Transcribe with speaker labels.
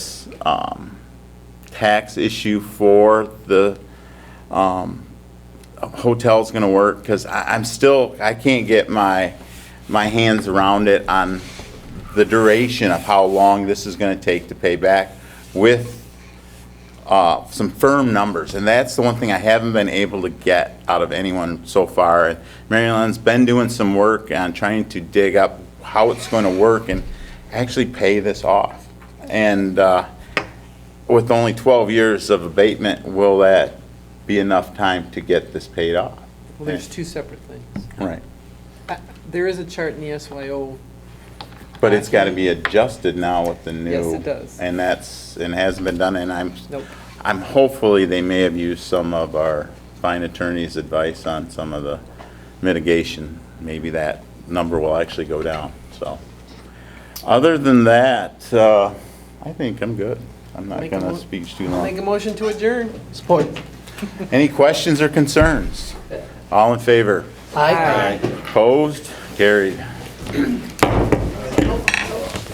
Speaker 1: um, tax issue for the um, hotel's going to work? Because I'm still, I can't get my, my hands around it on the duration of how long this is going to take to pay back with uh, some firm numbers, and that's the one thing I haven't been able to get out of anyone so far. And Mary Ellen's been doing some work on trying to dig up how it's going to work and actually pay this off. And uh, with only 12 years of abatement, will that be enough time to get this paid off?
Speaker 2: Well, there's two separate things.
Speaker 1: Right.
Speaker 2: Uh, There is a chart in E the SYO,
Speaker 1: But it's got to be adjusted now with the new.
Speaker 2: Yes, it does.
Speaker 1: And that's, and hasn't been done, and I'm.
Speaker 2: Nope.
Speaker 1: I'm, hopefully, they may have used some of our fine attorney's advice on some of the mitigation. Maybe that number will actually go down, so. Other than that, uh, I think I'm good. I'm not
Speaker 2: Make a
Speaker 1: gonna
Speaker 2: mo-
Speaker 1: speak too
Speaker 2: make a
Speaker 1: long.
Speaker 2: motion to adjourn.
Speaker 3: Support.
Speaker 1: Any questions or concerns? All in favor?
Speaker 3: Aye.
Speaker 1: Opposed? Carried.